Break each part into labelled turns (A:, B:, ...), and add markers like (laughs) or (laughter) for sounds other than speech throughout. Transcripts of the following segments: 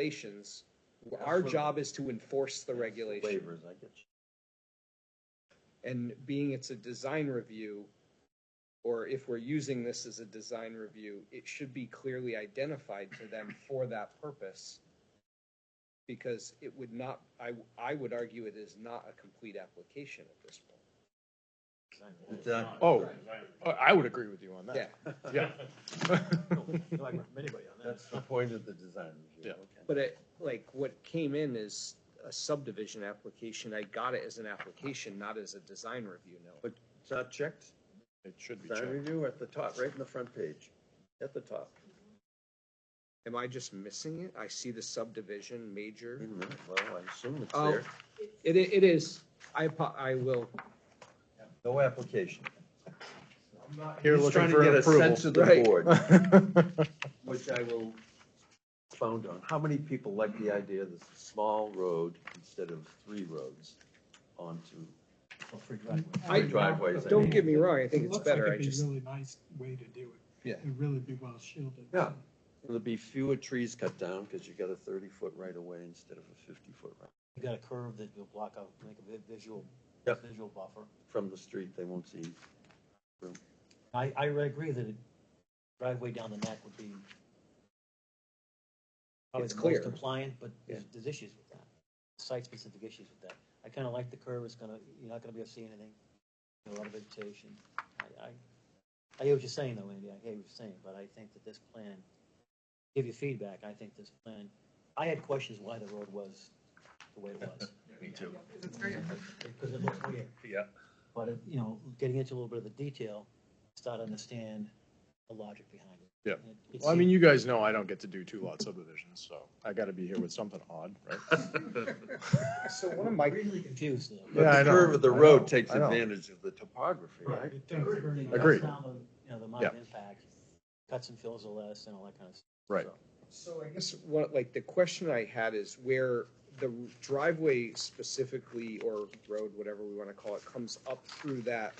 A: regulations.
B: Yeah,
A: Our
B: for-
A: job is to enforce the regulation.
B: Waivers, I get you.
A: And being it's a design review, or if we're using this as a design review, it should be clearly identified to them for that purpose. Because it would not, I, I would argue it is not a complete application at this point.
B: It's, uh,
C: Oh, I I would agree with you on that.
A: Yeah,
C: Yeah.
D: No, I agree with anybody on that.
B: That's the point of the design review.
C: Yeah.
B: okay.
A: but it, like, what came in is a subdivision application. I got it as an application, not as a design review note.
B: But it's not checked,
C: It should be
B: design
C: checked.
B: review at the top, right in the front page, at the top.
A: Am I just missing it? I see the subdivision
B: Wait
A: major.
B: a minute, Well, I assume it's
A: Oh.
B: there.
A: It, i- it is, I, apo- I will,
B: No application.
C: Here
B: He's
C: looking
B: trying to
C: for
B: get
C: an
B: a Sense
C: approval.
B: of the
A: Right.
B: board,
C: Right.
B: (laughs) which I will found on. How many people like the idea of this small road instead of three roads onto
D: Or free driveway.
A: I-
B: three driveways? I
A: don't
B: mean.
A: get me wrong, I think it's
E: looks
A: better,
E: like
A: I
E: it'd be
A: just,
E: Really nice way to do it.
A: Yeah.
E: It'd really be well shielded.
B: Yeah. There'll be fewer trees cut down because you got a thirty-foot right-of-way instead of a fifty-foot right.
D: You got a curve that you'll block out, make a vi- visual,
B: Yep.
D: visual buffer.
B: From the street, they won't see
D: I, I would agree that it- driveway down the neck would be probably
A: It's
D: the
A: clear.
D: most compliant, but there's, there's issues with that. Site-specific issues with that. I kind of like the curve, it's gonna, you're not gonna be able to see anything, a lot of vegetation. I, I, I hear what you're saying though, Andy, I hear what you're saying, but I think that this plan, give you feedback, I think this plan, I had questions why the road was the way it was.
C: (laughs) Me too.
D: because it looks weird.
C: Yeah.
D: But, it- you know, getting into a little bit of the detail, start to understand the logic behind it.
C: Yeah.
D: And it- it
C: Well, I mean,
D: seemed-
C: you guys know I don't get to do two lot subdivisions, so I gotta be here with something odd, right?
F: (laughs)
A: so one of my,
D: Really confused though.
C: Yeah, I
B: But the
C: know,
B: curve of the
C: I know,
B: road takes
C: I know.
B: advantage of the topography, right?
E: It does very
D: It
E: much.
D: cuts
C: Agreed.
D: down the, You know, the amount
C: Yeah.
D: of impact, cuts and fills are less and all that kind of stuff.
C: Right.
D: So,
A: so I guess, what, like, the question I had is where the driveway specifically, or road, whatever we wanna call it, comes up through that,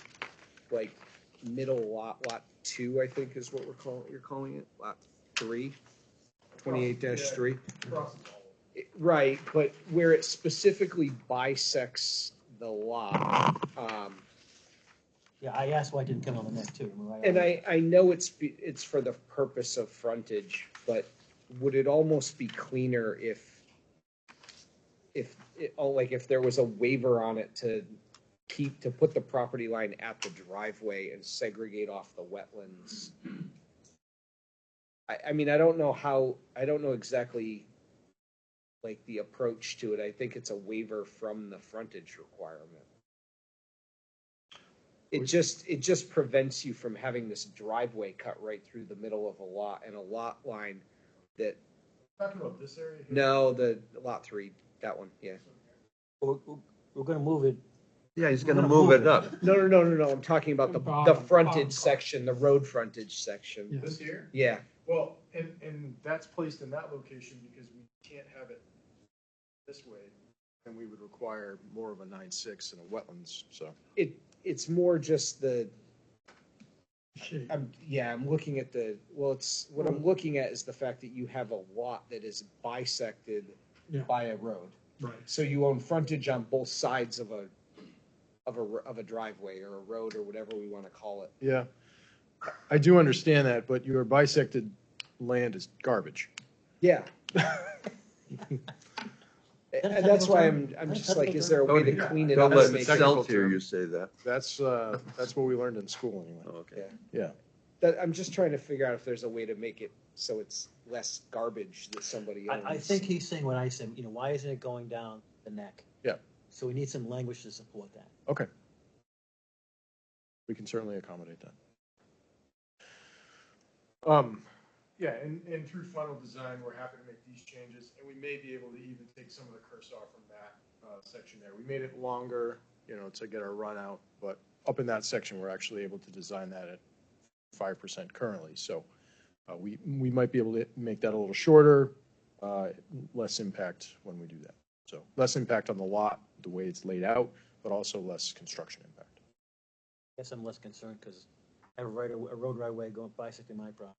A: like, middle lot, lot two, I think is what we're calling, you're calling it, lot three? Twenty-eight dash three? It- Right, but where it specifically bisects the lot, um,
D: Yeah, I asked why it didn't come on the neck too. remember,
A: And I, I know it's, be- it's for the purpose of frontage, but would it almost be cleaner if, if, it- oh, like if there was a waiver on it to keep, to put the property line at the driveway and segregate off the wetlands? I, I mean, I don't know how, I don't know exactly like the approach to it. I think it's a waiver from the frontage requirement. It just, it just prevents you from having this driveway cut right through the middle of a lot and a lot line that,
E: Talking about this area?
A: no, the lot three, that one, yeah.
D: We're, we're- we're gonna move it,
B: Yeah, he's
D: We're
B: gonna
D: gonna
B: move
D: move
B: it
D: it.
B: up.
A: No, no, no, no, no, I'm talking about the,
E: Bottom,
A: the
E: bottom
A: frontage
E: part.
A: section, the road frontage section.
E: Yes.
F: This here?
A: Yeah,
F: Well, and, and that's placed in that location because we can't have it this way.
C: And we would require more of a nine-six and a wetlands, so.
A: it, it's more just the,
E: Shape.
A: I'm, yeah, I'm looking at the, well, it's, what I'm looking at is the fact that you have a lot that is bisected
E: Yeah.
A: by a road.
E: Right.
A: So you own frontage on both sides of a, of a, of a driveway or a road or whatever we want to call it.
C: Yeah, I do understand that, but your bisected land is garbage.
A: (laughs) Yeah.
D: That's
A: And that's why I'm,
D: technical
A: I'm
D: term.
A: just
D: That's
A: like,
D: technical
A: is there a
B: Oh,
A: way to
B: yeah.
A: clean it up?
B: Don't
A: to
B: let
A: make it-
C: technical
B: Michelle hear
C: term.
B: you say that.
C: That's, uh, that's what we learned in school anyway.
B: Oh, Okay.
C: Yeah,
A: That, I'm just trying to figure out if there's a way to make it so it's less garbage that somebody owns.
D: I, I think he's saying what I said, you know, why isn't it going down the neck?
C: Yeah.
D: So we need some language to support that.
C: okay. We can certainly accommodate that. Um,
F: Yeah, and, and through final design, we're happy to make these changes, and we may be able to even take some of the curse off from that, uh, section there. We made it
C: longer, you know, to get our run out, but up in that section, we're actually able to design that at five percent currently, so uh, we, we might be able to make that a little shorter, uh, less impact when we do that. So less impact on the lot, the way it's laid out, but also less construction impact.
D: Guess I'm less concerned because I have a right, a road right away going bicycling my property.